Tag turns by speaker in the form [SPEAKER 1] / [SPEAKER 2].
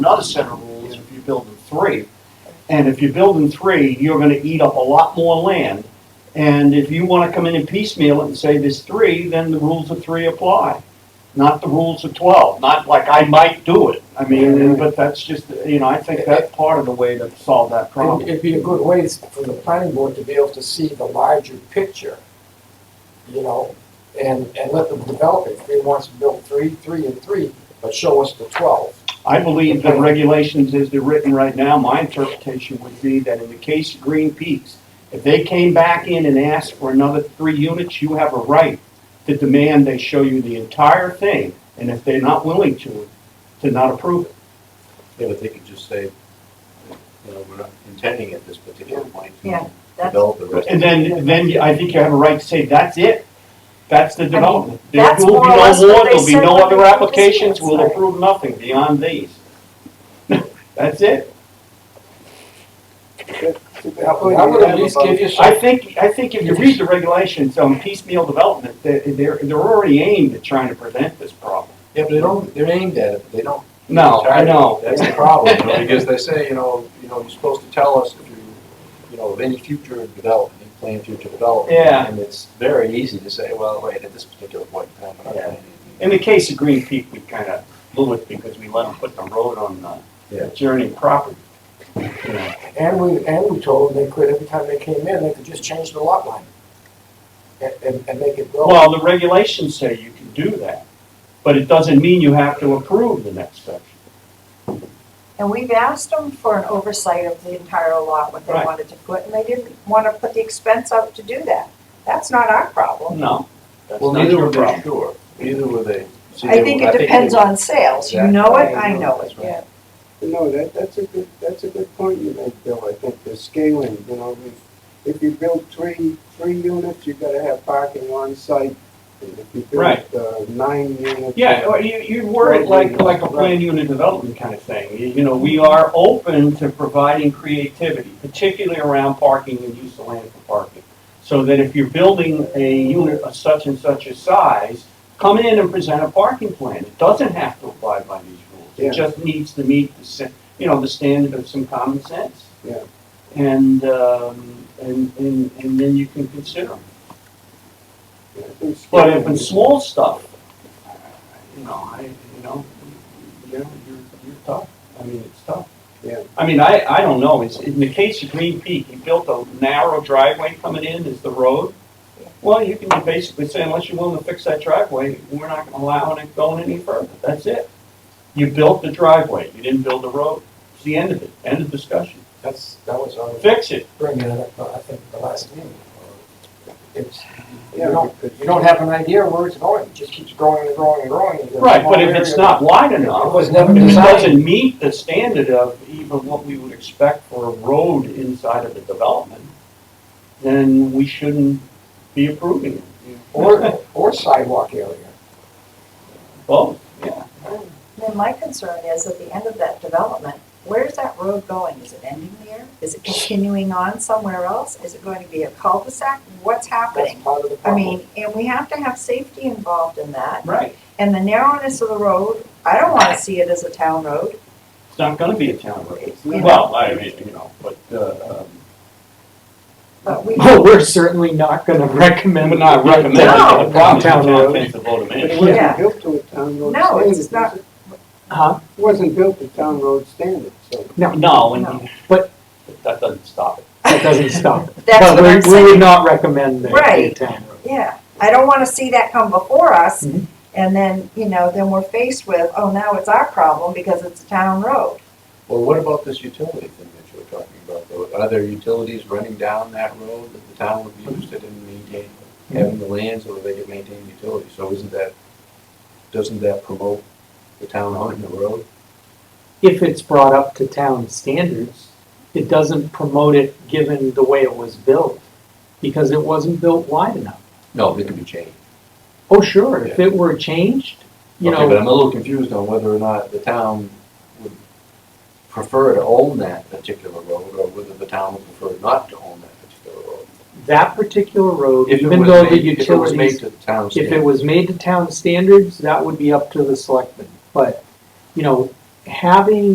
[SPEAKER 1] Another set of rules if you build in three. And if you build in three, you're gonna eat up a lot more land. And if you wanna come in and piecemeal it and say there's three, then the rules of three apply, not the rules of twelve, not like I might do it. I mean, but that's just, you know, I think that's part of the way to solve that problem.
[SPEAKER 2] It'd it'd be a good way for the planning board to be able to see the larger picture, you know, and, and let them develop it. If he wants to build three, three and three, but show us the twelve.
[SPEAKER 1] I believe the regulations as they're written right now, my interpretation would be that in the case of Green Peaks, if they came back in and asked for another three units, you have a right to demand they show you the entire thing, and if they're not willing to, to not approve it.
[SPEAKER 3] Yeah, but they could just say, you know, we're not intending at this particular point
[SPEAKER 4] Yeah,
[SPEAKER 3] to
[SPEAKER 4] that's-
[SPEAKER 3] develop the rest.
[SPEAKER 1] And then, then I think you have a right to say, that's it, that's the development. There
[SPEAKER 4] that's
[SPEAKER 1] will
[SPEAKER 4] more
[SPEAKER 1] be
[SPEAKER 4] or
[SPEAKER 1] no
[SPEAKER 4] less what
[SPEAKER 1] more,
[SPEAKER 4] they
[SPEAKER 1] there'll be
[SPEAKER 4] said
[SPEAKER 1] no
[SPEAKER 4] when
[SPEAKER 1] other
[SPEAKER 4] they approved this
[SPEAKER 1] applications,
[SPEAKER 4] year,
[SPEAKER 1] we'll
[SPEAKER 4] sorry.
[SPEAKER 1] approve nothing beyond these. That's it.
[SPEAKER 2] That would that would at least give you
[SPEAKER 1] I
[SPEAKER 2] some,
[SPEAKER 1] think, I think if you read the regulations on piecemeal development, they- they're, they're already aimed at trying to prevent this problem.
[SPEAKER 3] Yeah, but they don't, they're aimed at it, but they don't.
[SPEAKER 1] No, I know.
[SPEAKER 3] That's the problem, you know, because they say, you know, you know, you're supposed to tell us if you, you know, of any future development, you plan future development.
[SPEAKER 1] Yeah.
[SPEAKER 3] And it's very easy to say, well, wait, at this particular point in time, we're not
[SPEAKER 1] Yeah.
[SPEAKER 3] planning.
[SPEAKER 1] In the case of Green Peak, we kind of blew it because we let them put the road on the
[SPEAKER 3] Yeah.
[SPEAKER 1] adjoining property. You know,
[SPEAKER 2] and we, and we told them they could, every time they came in, they could just change the lot line. And, and, and make it go.
[SPEAKER 1] Well, the regulations say you can do that, but it doesn't mean you have to approve the next section.
[SPEAKER 4] And we've asked them for an oversight of the entire lot, what they
[SPEAKER 1] Right.
[SPEAKER 4] wanted to put, and they didn't want to put the expense up to do that. That's not our problem.
[SPEAKER 1] No, that's
[SPEAKER 3] Well,
[SPEAKER 1] not
[SPEAKER 3] neither
[SPEAKER 1] your
[SPEAKER 3] were they
[SPEAKER 1] problem.
[SPEAKER 3] sure, neither were they. see,
[SPEAKER 4] I
[SPEAKER 3] they
[SPEAKER 4] think
[SPEAKER 3] were-
[SPEAKER 4] it depends
[SPEAKER 3] they-
[SPEAKER 4] on sales. You
[SPEAKER 3] Exactly.
[SPEAKER 4] know it,
[SPEAKER 3] I
[SPEAKER 4] I
[SPEAKER 3] know,
[SPEAKER 4] know it,
[SPEAKER 3] that's right.
[SPEAKER 4] yeah.
[SPEAKER 5] No, that, that's a good, that's a good point you make, Bill, I think, the scaling, you know, if, if you build three, three units, you gotta have parking on site. And if you
[SPEAKER 1] Right.
[SPEAKER 5] build, uh, nine units.
[SPEAKER 1] Yeah, or you, you word it like, like a planned unit development kind of thing. You you know, we are open to providing creativity, particularly around parking and use of land for parking. So that if you're building a unit of such and such a size, come in and present a parking plan. It doesn't have to abide by these rules.
[SPEAKER 5] Yeah.
[SPEAKER 1] It just needs to meet the, sa- you know, the standard of some common sense.
[SPEAKER 5] Yeah.
[SPEAKER 1] And, um, and, and, and then you can consider them.
[SPEAKER 5] I think
[SPEAKER 1] But
[SPEAKER 5] scaling
[SPEAKER 1] if it's
[SPEAKER 5] is-
[SPEAKER 1] small stuff, you know, I, you know, you know, you're, you're tough. I mean, it's tough.
[SPEAKER 5] Yeah.
[SPEAKER 1] I mean, I, I don't know. It's, in the case of Green Peak, you built a narrow driveway coming in as the road. Well, you can basically say unless you're willing to fix that driveway, we're not gonna allow it going any further. That's it. You built the driveway. You didn't build the road. It's the end of it. End of discussion.
[SPEAKER 2] That's, that was our.
[SPEAKER 1] Fix it.
[SPEAKER 2] bringing it up, uh, I think, the last meeting. uh, It's, you
[SPEAKER 5] Yeah,
[SPEAKER 2] don't,
[SPEAKER 5] because-
[SPEAKER 2] you don't have an idea where it's going, it just keeps growing and growing and growing. You get a
[SPEAKER 1] Right, but
[SPEAKER 2] small
[SPEAKER 1] if it's
[SPEAKER 2] area.
[SPEAKER 1] not wide
[SPEAKER 2] It
[SPEAKER 1] enough,
[SPEAKER 2] was never
[SPEAKER 1] If it
[SPEAKER 2] designed,
[SPEAKER 1] doesn't meet the standard of even what we would expect for a road inside of the development, then we shouldn't be approving it.
[SPEAKER 2] or, or sidewalk area.
[SPEAKER 1] Both, yeah.
[SPEAKER 4] Then my concern is at the end of that development, where's that road going? Is it ending there? Is it continuing on somewhere else? Is it going to be a cul-de-sac?
[SPEAKER 2] That's
[SPEAKER 4] What's happening?
[SPEAKER 2] part of the
[SPEAKER 4] I
[SPEAKER 2] problem.
[SPEAKER 4] mean, and we have to have safety involved in that.
[SPEAKER 1] Right.
[SPEAKER 4] And the narrowness of the road, I don't want to see it as a town road.
[SPEAKER 1] It's not gonna be a town road.
[SPEAKER 4] It's not.
[SPEAKER 1] Well, I mean, you know, but, uh, um,
[SPEAKER 4] But we,
[SPEAKER 6] Well, we're certainly not gonna recommend.
[SPEAKER 1] I'm not recommending
[SPEAKER 4] No.
[SPEAKER 1] it. The problem is
[SPEAKER 6] Town
[SPEAKER 1] it's not
[SPEAKER 6] road.
[SPEAKER 1] meant to vote them
[SPEAKER 5] But it
[SPEAKER 1] in.
[SPEAKER 4] Yeah.
[SPEAKER 5] wasn't built to a town road
[SPEAKER 4] No,
[SPEAKER 5] standard.
[SPEAKER 4] it's not-
[SPEAKER 5] was it?
[SPEAKER 6] Huh?
[SPEAKER 5] It Wasn't built to town road standard, so.
[SPEAKER 1] No, and
[SPEAKER 4] No.
[SPEAKER 6] But-
[SPEAKER 1] that doesn't stop it.
[SPEAKER 6] That doesn't stop. it.
[SPEAKER 4] that's
[SPEAKER 6] But
[SPEAKER 4] what
[SPEAKER 6] we-
[SPEAKER 4] I'm
[SPEAKER 6] We would
[SPEAKER 4] saying.
[SPEAKER 6] not recommend that. to
[SPEAKER 4] Right.
[SPEAKER 6] the town road.
[SPEAKER 4] Yeah, I don't want to see that come before us.
[SPEAKER 6] Mhm.
[SPEAKER 4] And then, you know, then we're faced with, oh, now it's our problem because it's a town road.
[SPEAKER 3] Well, what about this utility thing that you were talking about, though? Are there utilities running down that road that the town would be interested in maintaining,
[SPEAKER 6] Mm-hmm.
[SPEAKER 3] having the land so that they could maintain utilities? So isn't that, doesn't that promote the town owning the road?
[SPEAKER 6] If it's brought up to town standards, it doesn't promote it given the way it was built, because it wasn't built wide enough.
[SPEAKER 3] No, it can be changed.
[SPEAKER 6] Oh, sure, if it were changed, you
[SPEAKER 3] Okay, but
[SPEAKER 6] know,
[SPEAKER 3] I'm a little confused on whether or not the town would prefer to own that particular road or whether the town would prefer not to own that particular road.
[SPEAKER 6] that particular road,
[SPEAKER 3] If it
[SPEAKER 6] even
[SPEAKER 3] was
[SPEAKER 6] though the
[SPEAKER 3] made- If it was made
[SPEAKER 6] utilities,
[SPEAKER 3] to the town
[SPEAKER 6] if
[SPEAKER 3] standard.
[SPEAKER 6] it was made to town standards, that would be up to the selectmen. But, you know, having